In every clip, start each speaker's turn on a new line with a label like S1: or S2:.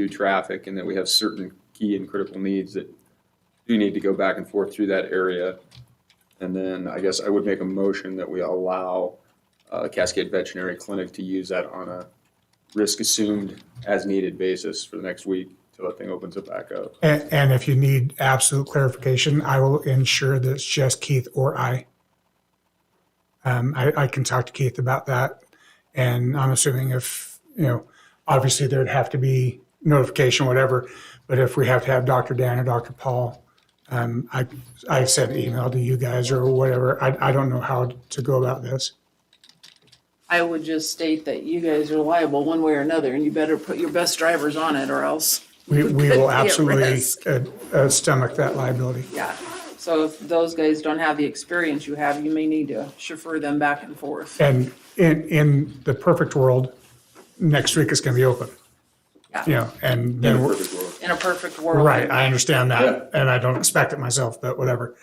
S1: do traffic and that we have certain key and critical needs that do need to go back and forth through that area. And then I guess I would make a motion that we allow uh, Cascade Veterinary Clinic to use that on a risk assumed as needed basis for the next week till that thing opens it back up.
S2: And, and if you need absolute clarification, I will ensure that it's just Keith or I. Um, I, I can talk to Keith about that. And I'm assuming if, you know, obviously there'd have to be notification, whatever. But if we have to have Dr. Dan or Dr. Paul, um, I, I sent an email to you guys or whatever. I, I don't know how to go about this.
S3: I would just state that you guys are liable one way or another, and you better put your best drivers on it or else,
S2: We, we
S3: Could be
S2: will
S3: at
S2: absolutely
S3: risk.
S2: uh, uh, stomach that liability.
S3: yeah. So if those guys don't have the experience you have, you may need to chauffeur them back and forth.
S2: And in, in the perfect world, next week is going to be open.
S3: Yeah.
S2: You know, and
S1: In a
S2: then, we're-
S1: perfect world.
S3: In a perfect world.
S2: right, I understand
S1: Yeah.
S2: that, and I don't expect it myself, but whatever.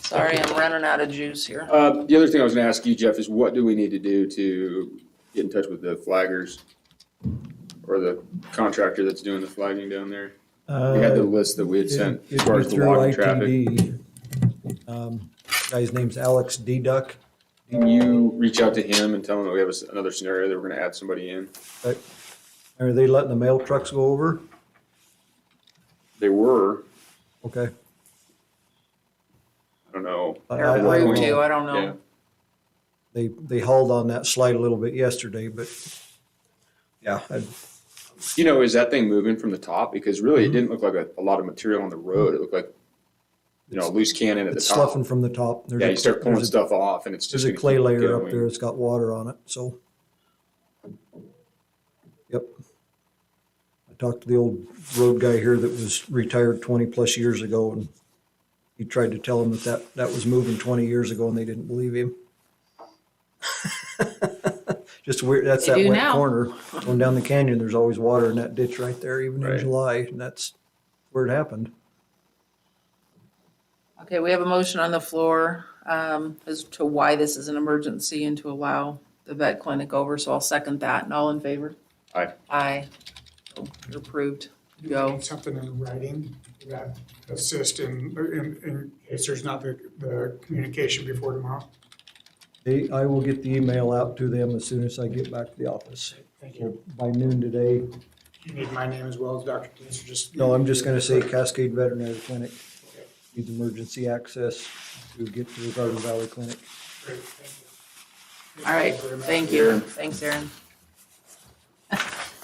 S3: Sorry, I'm running out of juice here.
S1: Uh, The other thing I was going to ask you, Jeff, is what do we need to do to get in touch with the flaggers or the contractor that's doing the flagging down there? We had the
S4: Uh,
S1: list that we had sent as
S4: it'd
S1: far
S4: be
S1: as the
S4: through
S1: logging traffic.
S4: ITD. Um, Guy's name's Alex D. Duck.
S1: Can you reach out to him and tell him that we have a s- another scenario that we're going to add somebody in?
S4: Are they letting the mail trucks go over?
S1: They were,
S4: Okay.
S1: I don't know.
S4: I- I- I
S3: They're
S4: don't
S3: rude
S4: know.
S3: too, I don't
S1: Yeah.
S3: know.
S4: They, they hauled on that slide a little bit yesterday, but yeah, I-
S1: You know, is that thing moving from the top? Because really,
S4: Mm-hmm.
S1: it didn't look like a, a lot of material on the road. It looked like, you know, a loose cannon at the
S4: it's
S1: top.
S4: sloughing from the top. There's
S1: Yeah,
S4: a-
S1: you start pulling
S4: there's a-
S1: stuff off and it's just.
S4: There's a
S1: gonna
S4: clay
S1: keep
S4: layer up
S1: going.
S4: there. It's got water on it, so. Yep. I talked to the old road guy here that was retired twenty-plus years ago, and he tried to tell him that that, that was moving twenty years ago, and they didn't believe him. Just weird, that's
S3: They
S4: that
S3: do
S4: wet
S3: now.
S4: corner. Going down the canyon, there's always water in that ditch right there, even in
S1: Right.
S4: July, and that's where it happened.
S3: Okay, we have a motion on the floor um, as to why this is an emergency and to allow the vet clinic over, so I'll second that. And all in favor?
S1: Aye.
S3: Aye. So You're approved. Go.
S2: Something in writing that assist in, in, in case there's not the, the communication before tomorrow.
S4: They, I will get the email out to them as soon as I get back to the office.
S2: Thank you.
S4: By noon today,
S2: You need my name as well as Dr. Dean's, or just?
S4: No, I'm just gonna say Cascade Veterinary Clinic needs emergency access to get to the Garden Valley Clinic.
S2: Great, thank you.
S3: All right,
S2: very much.
S3: thank you. Thanks, Aaron.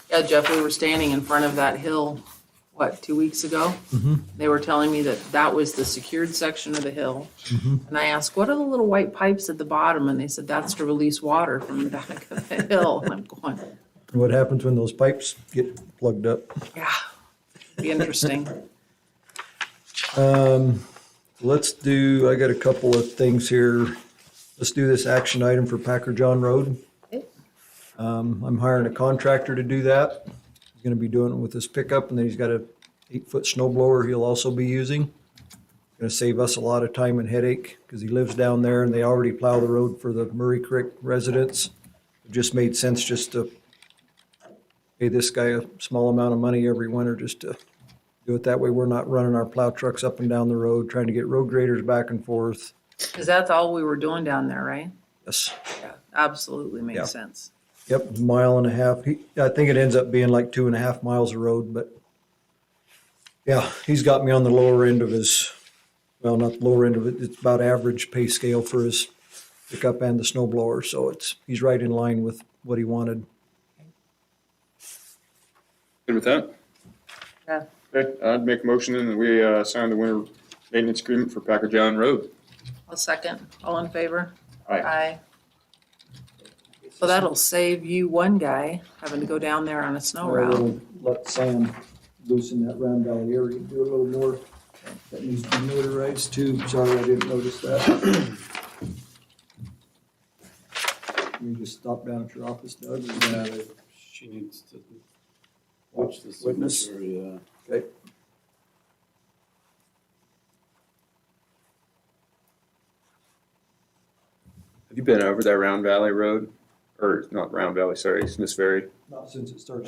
S3: Yeah, Jeff, we were standing in front of that hill, what, two weeks ago? They were telling me that that was the secured section of the hill. And I asked, what are the little white pipes at the bottom? And they said, that's to release water from the back of the hill. And I'm going,
S4: And what happens when those pipes get plugged up?
S3: yeah, be interesting.
S4: Um, let's do, I got a couple of things here. Let's do this action item for Packer John Road. Um, I'm hiring a contractor to do that. He's gonna be doing it with his pickup and then he's got a eight-foot snow blower he'll also be using. Gonna save us a lot of time and headache because he lives down there and they already plow the road for the Murray Creek residents. It just made sense just to pay this guy a small amount of money every winter just to do it that way. We're not running our plow trucks up and down the road, trying to get road graders back and forth.
S3: Because that's all we were doing down there, right?
S4: Yes.
S3: Yeah, absolutely
S4: Yeah.
S3: makes sense.
S4: Yep, mile and a half. He, I think it ends up being like two and a half miles of road, but yeah, he's got me on the lower end of his, well, not the lower end of it. It's about average pay scale for his pickup and the snow blower. So it's, he's right in line with what he wanted.
S1: Good with that?
S3: Yeah.
S1: Okay, I'd make a motion and we uh, sign the winter maintenance agreement for Packer John Road.
S3: I'll second. All in favor?
S1: Aye.
S3: Aye. So that'll save you one guy having to go down there on a snow route.
S4: Let Sam loosen that round valley area, do a little more. That needs to be notarized too. Sorry, I didn't notice that. You just stop down at your office, Doug. uh,
S5: Yeah, they- she needs to watch the
S4: Witness?
S5: signature, yeah.
S4: Okay.
S1: Have you been over that Round Valley Road? Or not Round Valley, sorry, Smiths Ferry?
S4: Not since it started